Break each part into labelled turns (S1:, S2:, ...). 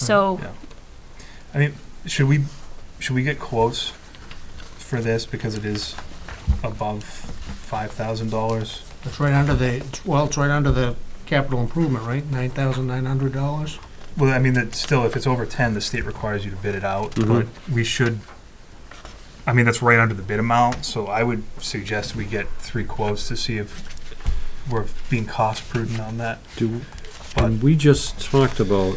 S1: So,
S2: Yeah. I mean, should we, should we get quotes for this because it is above five thousand dollars?
S3: It's right under the, well, it's right under the capital improvement, right? Nine thousand nine hundred dollars?
S2: Well, I mean, that still, if it's over ten, the state requires you to bid it out, but
S4: Mhm.
S2: we should, I mean, that's right under the bid amount, so I would suggest we get three quotes to see if we're being cost prudent on that.
S4: Do,
S2: But-
S4: and we just talked about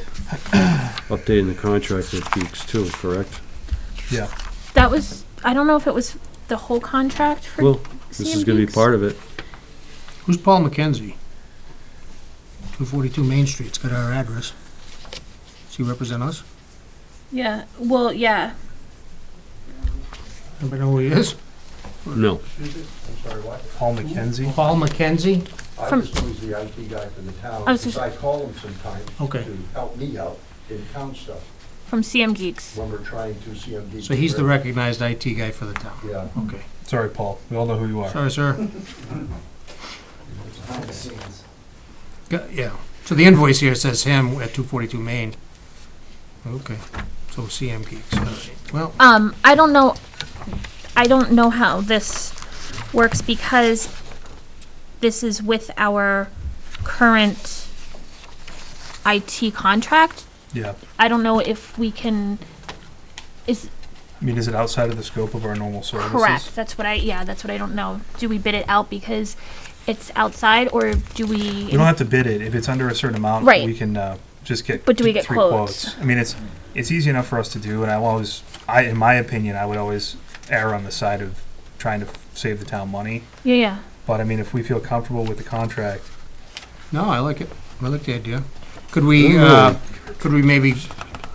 S4: updating the contract with Beeks too, correct?
S1: that was, I don't know if it was the whole contract for
S4: Well, this is gonna be
S1: CMBX.
S4: part of it.
S3: Who's Paul McKenzie? Two forty-two Main Street's got our address. Does he represent us?
S1: Yeah, well, yeah.
S3: Anybody know who he is?
S4: No,
S5: I'm sorry, what?
S2: Paul McKenzie?
S3: Paul McKenzie?
S5: I
S1: From-
S5: just use the IT guy for the town,
S1: I was just-
S5: because I call him sometimes
S3: Okay.
S5: to help me out in town stuff
S1: From CM Geeks.
S5: when we're trying to CMD.
S3: So he's the recognized IT guy for the town.
S5: Yeah.
S3: Okay.
S2: Sorry, Paul, we all know who you are.
S3: Sorry, sir.
S5: Behind the scenes.
S3: Go- Yeah. So the invoice here says him at two forty-two Main. Okay. So CM Geeks, all right. Well,
S1: Um, I don't know, I don't know how this works because this is with our current IT contract.
S2: Yeah,
S1: I don't know if we can, is,
S2: I mean, is it outside of the scope of our normal services?
S1: correct, that's what I, yeah, that's what I don't know. Do we bid it out because it's outside or do we?
S2: We don't have to bid it. If it's under a certain amount,
S1: Right.
S2: we can uh, just get.
S1: But do we get
S2: three
S1: quotes?
S2: I mean, it's it's easy enough for us to do, and I will always, I in my opinion, I would always err on the side of trying to save the town money.
S1: Yeah, yeah.
S2: But I mean, if we feel comfortable with the contract,
S3: no, I like it. I like the idea. Could we, uh, could we maybe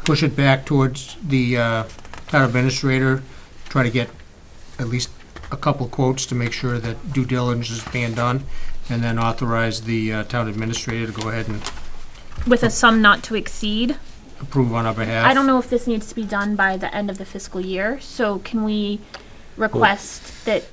S3: push it back towards the, uh, town administrator? Try to get at least a couple quotes to make sure that due diligence is being done? And then authorize the, uh, town administrator to go ahead and
S1: With a sum not to exceed.
S3: approve on our behalf?
S1: I don't know if this needs to be done by the end of the fiscal year, so can we request that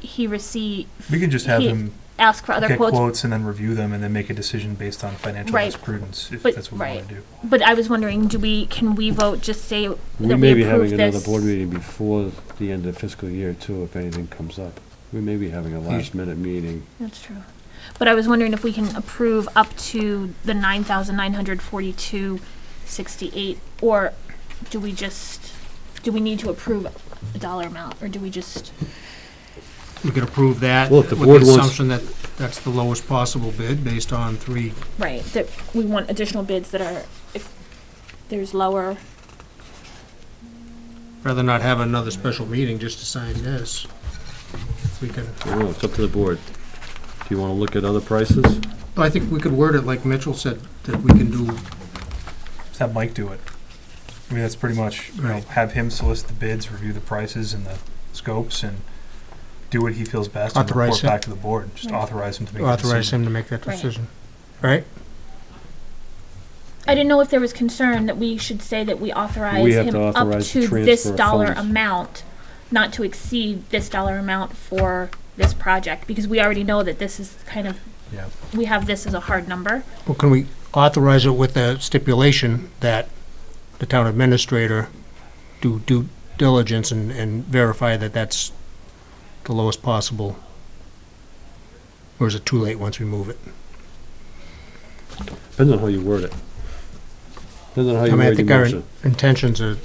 S1: he receive,
S2: we can just have
S1: He-
S2: him
S1: ask for other
S2: get quotes.
S1: quotes?
S2: and then review them, and then make a decision based on financial
S1: Right.
S2: prudence, if
S1: But-
S2: that's what we
S1: right.
S2: want to do.
S1: But I was wondering, do we, can we vote, just say that
S4: we
S1: we
S4: may be
S1: approve
S4: having another
S1: this?
S4: board meeting before the end of fiscal year too, if anything comes up. We may be having a last minute meeting.
S1: That's true. But I was wondering if we can approve up to the nine thousand nine hundred forty-two sixty-eight, or do we just, do we need to approve a dollar amount, or do we just?
S3: We could approve that
S4: Well,
S3: with
S4: if the board
S3: the
S4: wants-
S3: assumption that that's the lowest possible bid based on three.
S1: Right, that we want additional bids that are, if there's lower.
S3: Rather not have another special meeting just to sign this. We could,
S4: I don't know, it's up to the board. Do you wanna look at other prices?
S3: I think we could word it like Mitchell said, that we can do,
S2: Just have Mike do it. I mean, that's pretty much you know
S3: Right.
S2: have him solicit the bids, review the prices and the scopes, and do what he feels best, and
S3: Authorize
S2: report
S3: him.
S2: back to the board. Just
S1: Right.
S2: authorize him to make a
S3: authorize
S2: decision.
S3: him to make that
S1: Right.
S3: decision. Right?
S1: I didn't know if there was concern that we should say that we authorize
S4: We have
S1: him
S4: to
S1: up
S4: authorize
S1: to
S4: transfer
S1: this
S4: of
S1: dollar
S4: funds.
S1: amount, not to exceed this dollar amount for this project, because we already know that this is kind of,
S2: Yeah.
S1: we have this as a hard number.
S3: Well, can we authorize it with a stipulation that the town administrator do due diligence and, and verify that that's the lowest possible? Or is it too late once we move it?
S4: Depends on how you word it. Depends on how
S3: I
S4: you
S3: mean, I
S4: word your
S3: think our
S4: motion.
S3: intentions are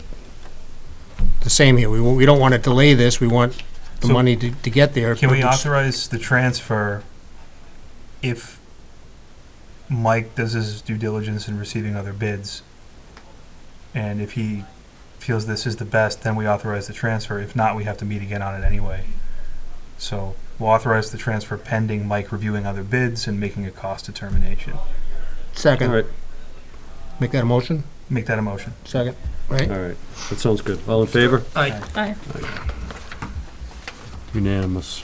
S3: the same here. We, wa- we don't want to delay this. We want the
S2: So-
S3: money to, to get there.
S2: Can
S3: but
S2: we
S3: it's-
S2: authorize the transfer if Mike does his due diligence in receiving other bids? And if he feels this is the best, then we authorize the transfer. If not, we have to meet again on it anyway. So we'll authorize the transfer pending Mike reviewing other bids and making a cost determination.
S4: All
S3: Second,
S4: right,
S3: make that a motion?
S2: Make that a motion.
S3: Second.
S4: all right. That sounds good. All in favor?
S3: Aye.
S1: I
S4: Unanimous.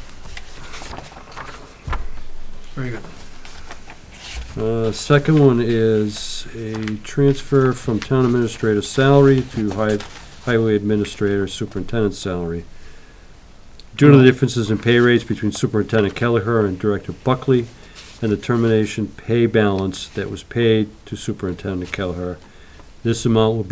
S3: Very good.
S4: Uh, Second one is a transfer from town administrator salary to hi- highway administrator superintendent salary. Due to the differences in pay rates between Superintendent Kelleher and Director Buckley, and the termination pay balance that was paid to Superintendent Kelleher This amount will be